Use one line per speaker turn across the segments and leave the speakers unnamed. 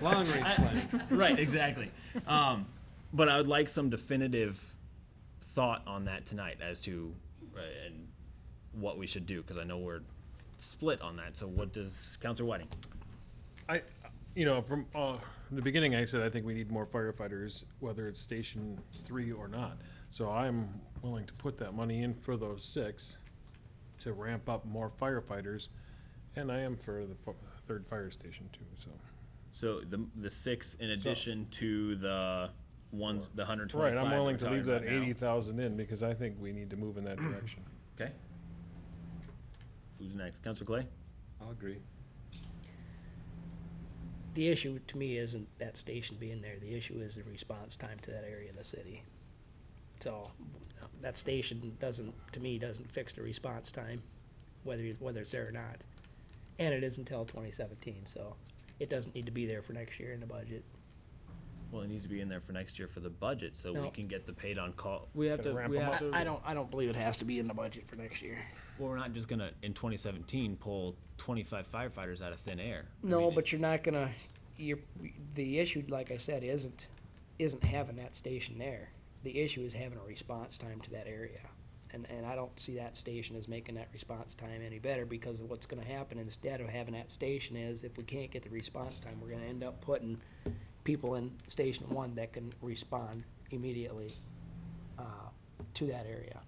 Long range
I-
planning.
right, exactly. Um, but I would like some definitive thought on that tonight as to uh, and what we should do because I know we're split on that. So what does Councilor Whiting?
I, you know, from uh, the beginning, I said I think we need more firefighters, whether it's Station Three or not. So I'm willing to put that money in for those six to ramp up more firefighters, and I am for the fu- third fire station too. So
So the the six in addition to the ones the 125.
right,
that
I'm
we're
willing to
talking
leave that
about now.
eighty thousand in because I think we need to move in that direction.
Okay. Who's next, Councilor Clay?
I'll agree.
The issue to me isn't that station being there, the issue is the response time to that area of the city. So, that station doesn't, to me, doesn't fix the response time, whether, you- whether it's there or not. And it is until twenty seventeen, so it doesn't need to be there for next year in the budget.
Well, it needs to be in there for next year for the budget, so we
No.
can get the paid on call. We have
Gotta
to.
ramp
We
'em
have
up.
to.
I, I don't, I don't believe it has to be in the budget for next year.
Well, we're not just gonna in 2017 pull 25 firefighters out of thin air. I
No,
mean,
but
it's-
you're not gonna, you're, the issue, like I said, isn't, isn't having that station there. The issue is having a response time to that area. And, and I don't see that station as making that response time any better because of what's gonna happen instead of having that station is if we can't get the response time, we're gonna end up putting people in station one that can respond immediately, uh, to that area,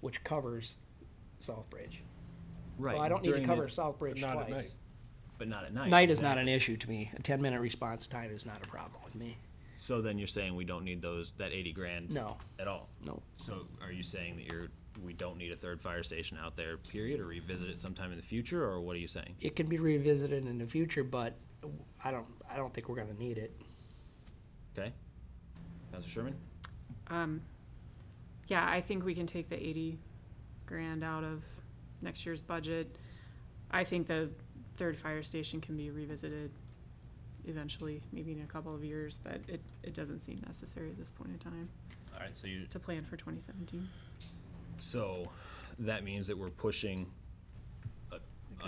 which covers Southbridge.
right.
So I don't need to
during the-
cover Southbridge twice.
Not at night.
but not at night.
Night is not
exactly.
an issue to me. A ten minute response time is not a problem with me.
So then you're saying we don't need those that 80 grand.
No.
At all.
No.
So are you saying that you're we don't need a third fire station out there? Period, or revisit it sometime in the future, or what are you saying?
It can be revisited in the future, but I don't, I don't think we're gonna need it.
Okay. Councilor Sherman.
Yeah, I think we can take the eighty grand out of next year's budget. I think the third fire station can be revisited eventually, maybe in a couple of years, but it, it doesn't seem necessary at this point in time
All right. So you
to plan for twenty seventeen.
So that means that we're pushing a, a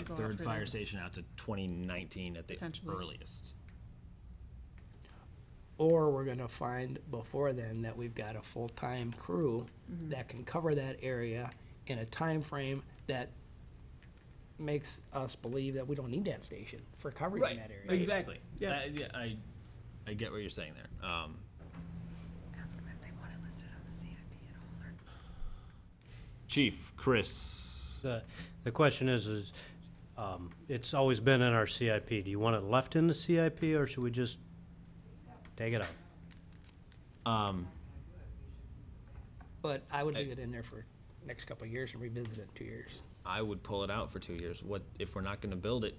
could go out
third
for
fire
that.
station out to twenty nineteen at the
Potentially.
earliest.
Or we're gonna find before then that we've got a full-time crew
Mm-hmm.
that can cover that area in a time frame that makes us believe that we don't need that station for coverage in that area.
Exactly.
Yeah.
I, yeah, I, I get what you're saying there. Um,
Ask them if they want it listed on the CIP at all, or
Chief Chris.
The, the question is, is, um, it's always been in our CIP. Do you want it left in the CIP or should we just take it out?
But I would leave it in there for next couple of years and revisit it in two years.
I would pull it out for two years. What if we're not going to build it?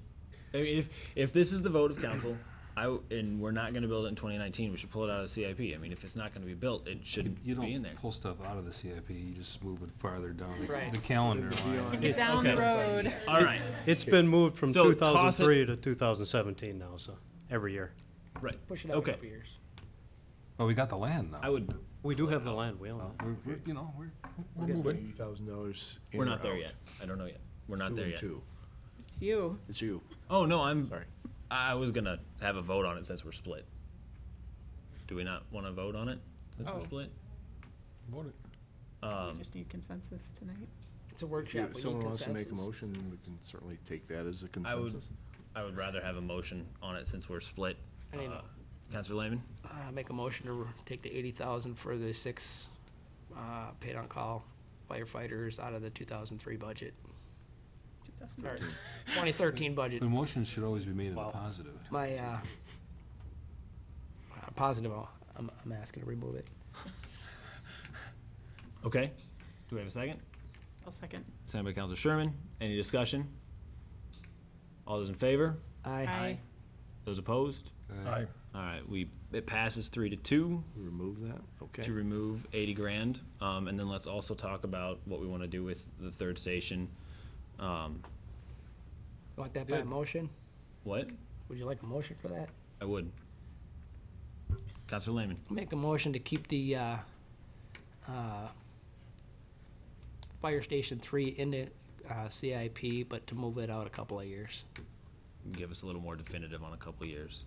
I mean, if if this is the vote of council, I w- and we're not going to build it in 2019, we should pull it out of the CIP. I mean, if it's not going to be built, it shouldn't
You
be in
don't
there.
pull stuff out of the CIP, you just move it farther down the-
Right.
the calendar line.
Get down the road.
All right,
It's been moved from
So
two
toss it-
thousand three to two thousand seventeen now, so, every year.
right.
Push it out a
Okay.
couple of years.
But Oh, we got the land
I
now.
would.
We do have the land, we own it.
We're, we're- you know, we're,
We're moving. Eighty thousand dollars.
We're not there yet. I don't know yet. We're not there yet.
Two,
It's you.
it's you.
Oh no, I'm
Sorry.
I was gonna have a vote on it since we're split. Do we not want to vote on it since
Oh.
we're split?
Vote it.
We just need consensus tonight.
It's a
If
workshop.
you-
We need
someone wants to make a
consensus.
motion, we can certainly take that as
I
a
would-
consensus.
I would rather have a motion on it since we're split.
I mean,
Uh, Councilor Lehman,
Uh, make a motion to r- take the eighty thousand for the six, uh, paid on call firefighters out of the two thousand three budget,
That's
or
not-
twenty thirteen budget.
the motion should always be made in the positive.
My, uh, uh, positive, uh, I'm, I'm asking to remove it.
okay. Do we have a second?
I'll second.
Second by Councilor Sherman. Any discussion? All those in favor?
Aye.
Those opposed?
Aye.
All right, we it passes three to two.
We Remove that, okay.
to remove eighty grand, um, and then let's also talk about what we wanna do with the third station.
Want that by a motion?
What?
Would you like a motion for that?
I would. Councilor Lehman,
Make a motion to keep the, uh, uh, fire station three in the, uh, CIP, but to move it out a couple of years.
give us a little more definitive on a couple of years.